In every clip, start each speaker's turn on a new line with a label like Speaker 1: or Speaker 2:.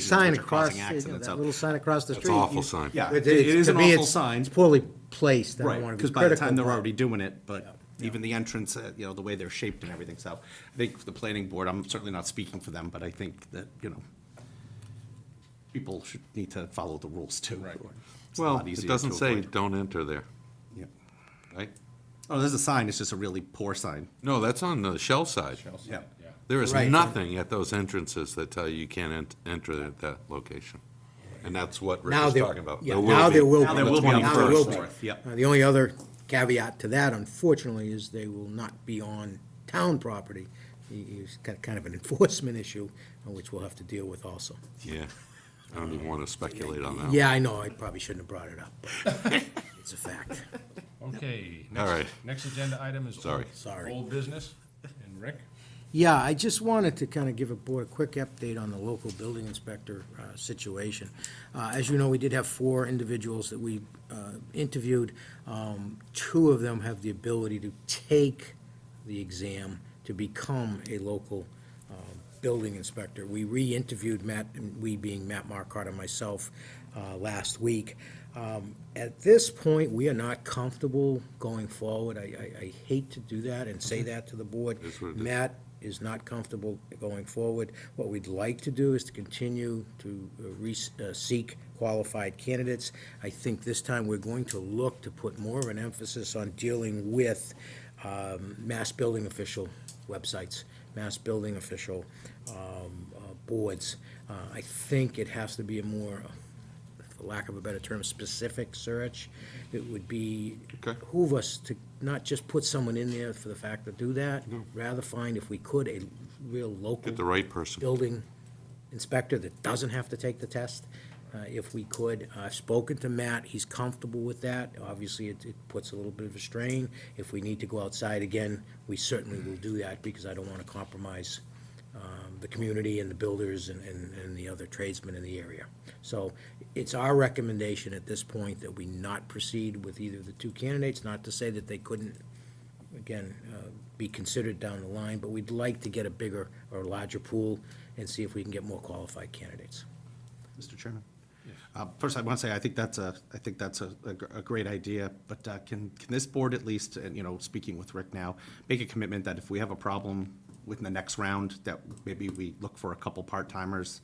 Speaker 1: sign
Speaker 2: which are
Speaker 1: across,
Speaker 2: causing
Speaker 1: you know,
Speaker 2: accidents
Speaker 1: that
Speaker 2: out-
Speaker 1: little sign across the
Speaker 3: It's
Speaker 1: street.
Speaker 3: an awful
Speaker 1: you-
Speaker 3: sign.
Speaker 2: Yeah, it
Speaker 1: It it-
Speaker 2: it is
Speaker 1: to
Speaker 2: an
Speaker 1: me,
Speaker 2: awful
Speaker 1: it's-
Speaker 2: sign.
Speaker 1: It's poorly placed, I don't
Speaker 2: Right,
Speaker 1: want to
Speaker 2: because
Speaker 1: be
Speaker 2: by the
Speaker 1: critical.
Speaker 2: time they're
Speaker 1: but-
Speaker 2: already doing it, but even the entrance, uh, you know, the way they're shaped and everything, so I think the planning board, I'm certainly not speaking for them, but I think that, you know, people should need to follow the rules too. Right.
Speaker 3: Well, it doesn't say don't enter there, right?
Speaker 2: Oh, there's a sign, it's just a really poor sign.
Speaker 3: No, that's on the shell side.
Speaker 2: Yeah.
Speaker 3: There is
Speaker 1: Right.
Speaker 3: nothing at those entrances that tell you you can't ent- enter at that location. And that's what Rick
Speaker 1: Now
Speaker 3: was
Speaker 1: there-
Speaker 3: talking about.
Speaker 1: yeah, now there will
Speaker 2: Now
Speaker 1: be.
Speaker 2: there will be on the
Speaker 1: Now there will be.
Speaker 2: 21st, yep.
Speaker 1: Uh, The only other caveat to that, unfortunately, is they will not be on town property. You- You've got kind of an enforcement issue, uh, which we'll have to deal with also.
Speaker 3: Yeah, I don't even want to speculate on that. one.
Speaker 1: Yeah, I know, I probably shouldn't have brought it up, but it's a fact.
Speaker 4: Okay.
Speaker 3: All
Speaker 4: next-
Speaker 3: right.
Speaker 4: Next agenda item is. old-
Speaker 3: Sorry.
Speaker 1: Sorry.
Speaker 4: Old business, and Rick?
Speaker 1: Yeah, I just wanted to kind of give a board a quick update on the local building inspector uh, situation. Uh, As you know, we did have four individuals that we uh, interviewed. Um, Two of them have the ability to take the exam to become a local uh, building inspector. We re-interviewed Matt, and we being Matt Marcotte and myself, uh, last week. Um, At this point, we are not comfortable going forward. I- I I hate to do that and say that to the board.
Speaker 3: That's what it is.
Speaker 1: Matt is not comfortable going forward. What we'd like to do is to continue to uh, re- uh, seek qualified candidates. I think this time we're going to look to put more of an emphasis on dealing with um, mass building official websites, mass building official um, uh, boards. Uh, I think it has to be a more, for lack of a better term, specific search. It would be
Speaker 3: Okay.
Speaker 1: behoove us to not just put someone in there for the fact to do that, rather find, if we could, a real
Speaker 3: Get the
Speaker 1: local
Speaker 3: right person.
Speaker 1: building inspector that doesn't have to take the test, uh, if we could. Uh, I've spoken to Matt, he's comfortable with that. Obviously, it, it puts a little bit of a strain. If we need to go outside again, we certainly will do that, because I don't want to compromise um, the community and the builders and, and and the other tradesmen in the area. So it's our recommendation at this point that we not proceed with either of the two candidates, not to say that they couldn't, again, uh, be considered down the line, but we'd like to get a bigger or larger pool and see if we can get more qualified candidates.
Speaker 2: Mr. Chairman? Uh, First, I want to say, I think that's a, I think that's a, a gr- a great idea, but uh, can, can this board at least, and, you know, speaking with Rick now, make a commitment that if we have a problem within the next round, that maybe we look for a couple part-timers,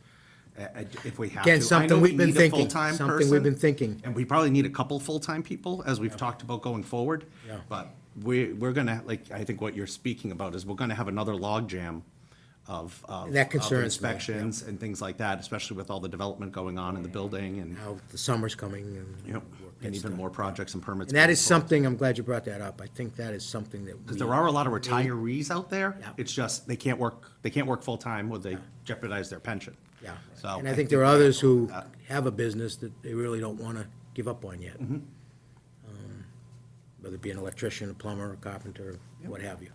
Speaker 2: uh, uh, if we have to.
Speaker 1: Again,
Speaker 2: I
Speaker 1: something
Speaker 2: know we
Speaker 1: we've been
Speaker 2: need a
Speaker 1: thinking,
Speaker 2: full-time
Speaker 1: something we've
Speaker 2: person,
Speaker 1: been thinking.
Speaker 2: And we probably need a couple full-time people, as we've talked about going forward.
Speaker 1: Yeah.
Speaker 2: But we, we're gonna, like, I think what you're speaking about is we're gonna have another logjam of, of.
Speaker 1: That
Speaker 2: of
Speaker 1: concerns me, yeah.
Speaker 2: Inspections, events and things like that, especially with all the development going on in the building and,
Speaker 1: Now, the summer's coming and.
Speaker 2: Yep. and even more projects and permits.
Speaker 1: And that
Speaker 2: being
Speaker 1: is
Speaker 2: pulled.
Speaker 1: something, I'm glad you brought that up. I think that is something that.
Speaker 2: Because
Speaker 1: we-
Speaker 2: there are a lot of retirees out there.
Speaker 1: Yeah.
Speaker 2: It's just, they can't work, they can't work full-time or they jeopardize their pension.
Speaker 1: Yeah,
Speaker 2: So
Speaker 1: and I think there are others who have a business that they really don't want to give up on
Speaker 2: Mm-hmm.
Speaker 1: yet. Um, Whether it be an electrician, a plumber, a carpenter, what have you.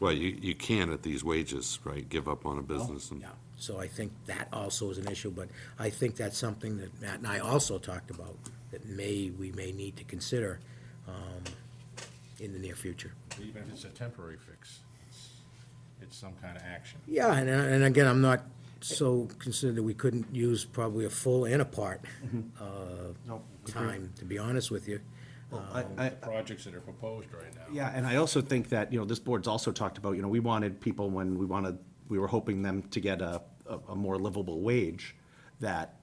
Speaker 3: Well, you, you can at these wages, right, give up on a business and.
Speaker 1: Yeah, so I think that also is an issue, but I think that's something that Matt and I also talked about, that may, we may need to consider um, in the near future.
Speaker 4: Even if it's a temporary fix, it's- it's some kind of action.
Speaker 1: Yeah, and, uh, and again, I'm not so concerned that we couldn't use probably a full and a part uh,
Speaker 2: Nope, agree.
Speaker 1: time, to be honest with you.
Speaker 2: I-
Speaker 4: With
Speaker 2: I-
Speaker 4: The projects that are proposed right now.
Speaker 2: Yeah, and I also think that, you know, this board's also talked about, you know, we wanted people when we wanted, we were hoping them to get a, a, a more livable wage that,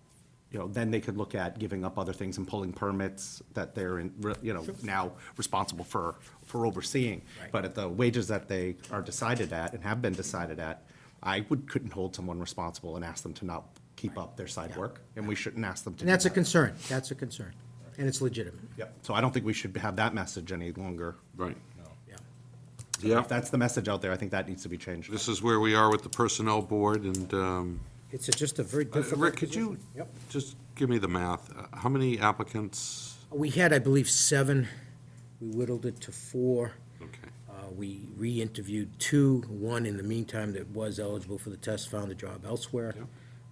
Speaker 2: you know, then they could look at giving up other things and pulling permits that they're in, re- you know, now responsible for, for overseeing.
Speaker 1: Right.
Speaker 2: But at the wages that they are decided at and have been decided at, I would, couldn't hold someone responsible and ask them to not keep up their side work, and we shouldn't ask them to.
Speaker 1: And
Speaker 2: do
Speaker 1: that's a
Speaker 2: that.
Speaker 1: concern, that's a concern, and it's legitimate,
Speaker 2: Yep, so I don't think we should have that message any longer.
Speaker 3: Right.
Speaker 1: yeah.
Speaker 3: Yeah,
Speaker 2: If that's the message out there, I think that needs to be changed.
Speaker 3: this is where we are with the personnel board and, um,
Speaker 1: It's a- just a very
Speaker 3: uh,
Speaker 1: difficult.
Speaker 3: Rick, could you
Speaker 1: position. Yep.
Speaker 3: just give me the math? Uh, How many applicants?
Speaker 1: We had, I believe, seven, we whittled it to four.
Speaker 3: Okay.
Speaker 1: Uh, We re-interviewed two, one in the meantime that was eligible for the test found a job elsewhere.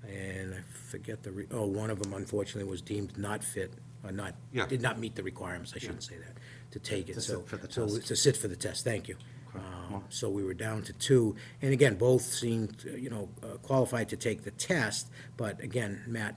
Speaker 1: And I forget the, re- oh, one of them unfortunately was deemed not fit, or not,
Speaker 3: Yeah.
Speaker 1: did not meet the requirements, I shouldn't say that, to take it,
Speaker 2: To
Speaker 1: so.
Speaker 2: sit for the
Speaker 1: so
Speaker 2: test.
Speaker 1: To sit for the test, thank you. Um, So we were down to two, and again, both seemed, you know, uh, qualified to take the test, but again, Matt